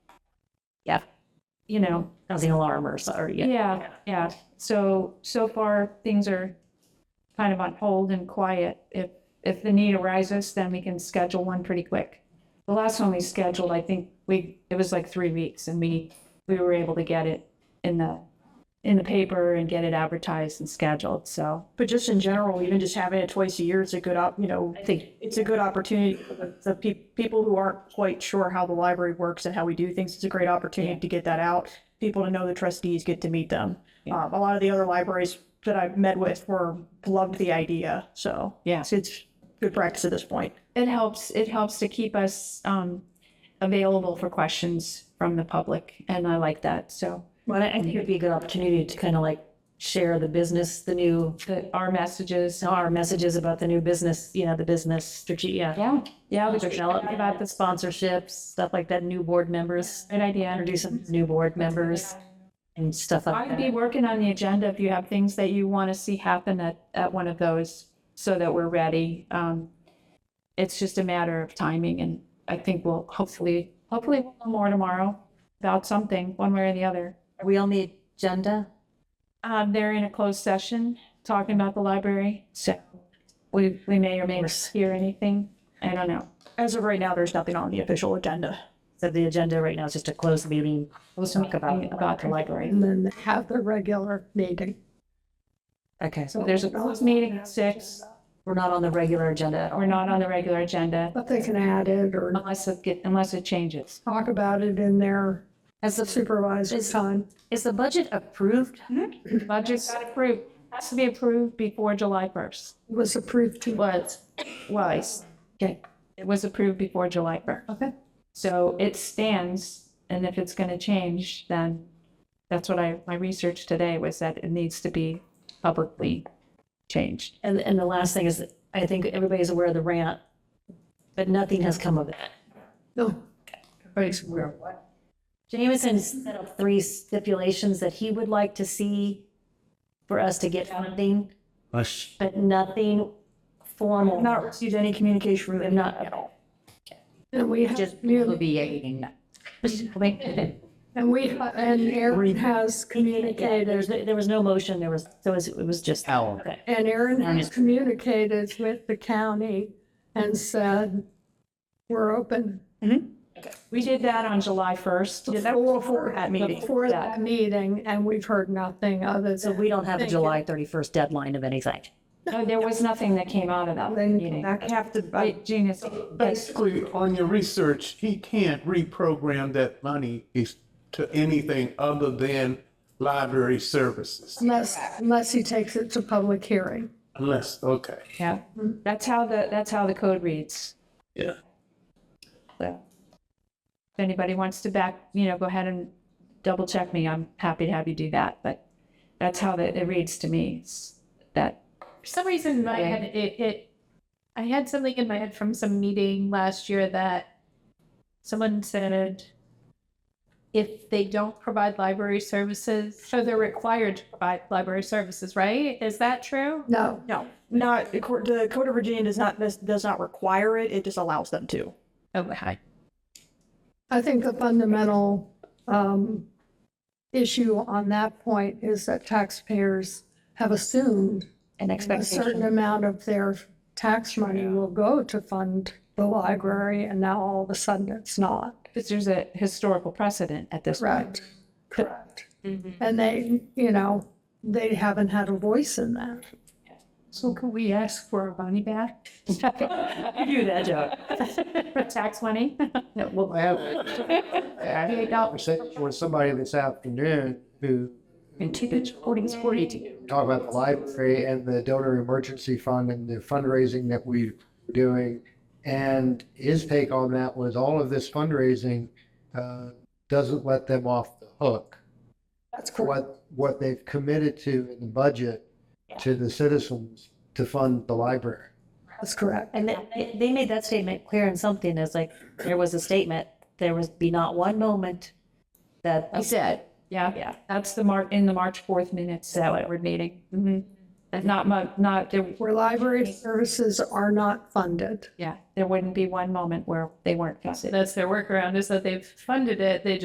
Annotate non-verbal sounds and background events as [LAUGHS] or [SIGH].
Yeah. you know, Housing alarm or, so- or, yeah. yeah, yeah. So, so far, things are kind of on hold and quiet. If, if the need arises, then we can schedule one pretty quick. The last one we scheduled, I think we, it was like three weeks and we, we were able to get it in the, in the paper and get it advertised and scheduled, so. But just in general, even just having it twice a year is a good op, you know, I think, it's a good opportunity for the, the pe- people who aren't quite sure how the library works and how we do things. It's a great opportunity to get that out. People to know the trustees get to meet them. Um, a lot of the other libraries that I've met with were loved the idea. So Yeah. it's, it's good practice at this point. It helps, it helps to keep us, um, available for questions from the public, and I like that, so. well, I I think it'd be a good opportunity to kind of like share the business, the new, The, our messages, our messages about the new business, you know, the business strategy, yeah. yeah, yeah, we Other should development, About the sponsorships, stuff like that, new board members, Great idea. introduce some new board members and stuff like I'd be that. working on the agenda if you have things that you want to see happen at, at one of those so that we're ready. Um, it's just a matter of timing and I think we'll hopefully, hopefully we'll know more tomorrow about something, one way or the other. Are we on the agenda? Um, they're in a closed session talking about the library, so we, we may or may not hear anything. I don't know. As of right now, there's nothing on the official agenda. So the agenda right now is just a closed meeting. We'll talk about, Mm. about the library. and then have the regular meeting. Okay, so So there's a closed meeting at six. we're not on the regular agenda at all. We're not on the regular agenda But they can add it or unless it get, unless it changes. talk about it in their Has the, supervisor's time. is the budget approved? Budget's got approved, has to be approved before July first. It was approved to Was, was. Okay. It was approved before July first. Okay. So it stands, and if it's gonna change, then that's what I, my research today was that it needs to be publicly changed. And, and the last thing is, that I think everybody's aware of the rant, but nothing has come of that. No, Jameson set up three stipulations that he would like to see for us to get funding, Us, but nothing formal. Not received any communication We're from them. Not at all. and we have, commu- Alleviating that. and we, ha- and Aaron has communicated, There's, there was no motion, there was, so it was- it was just. Okay. and Aaron has communicated with the county and said, we're open We did that on July first. Yeah, that was before that meeting. for that meeting, and we've heard nothing other So than we don't have a Thank you. July thirty-first deadline of anything. No, there was nothing that came out of that meeting. I have to, I, Wait, Gina, Basically, on your research, he can't reprogram that money is- to anything other than library services. unless, unless he takes it to public hearing. Unless, okay. yeah, Hmm. that's how the, that's how the code reads. Yeah. So if anybody wants to back, you know, go ahead and double check me. I'm happy to have you do that, but that's how that it reads to me. It's That, For some reason in my Yeah. head, it, it, I had something in my head from some meeting last year that someone said if they don't provide library services, so they're required to provide library services, right? Is that true? No, no, not, the court- the Code of Virginia does not, does not require it. It just allows them to. Oh, hi. I think the fundamental um, issue on that point is that taxpayers have assumed An a certain expectation. amount of their tax money will go to fund the library, and now all of a sudden it's not. because there's a historical precedent at this point. Correct. Mm-hmm. Correct. And they, you know, they haven't had a voice in that. So can we ask for our money [LAUGHS] [LAUGHS] back? do that job. [LAUGHS] Tax money? Well, I have, I had a conversation with somebody this afternoon who In two, it's forty, it's forty-two. talked about the library and the donor emergency fund and the fundraising that we're doing. And his take on that was all of this fundraising uh, doesn't let them off the hook. That's for What, what they've committed to in the budget to the citizens to fund the library. That's correct. And they, they made that statement clear in something, it's like, there was a statement, there was be not one moment that. said. Yeah, yeah, that's the Mar, in the March fourth minutes, that board meeting. Mm-hmm. Mhm. And not mu, not, there, Where library services are not funded. yeah, there wouldn't be one moment where they weren't. That's their workaround is that they've funded it. They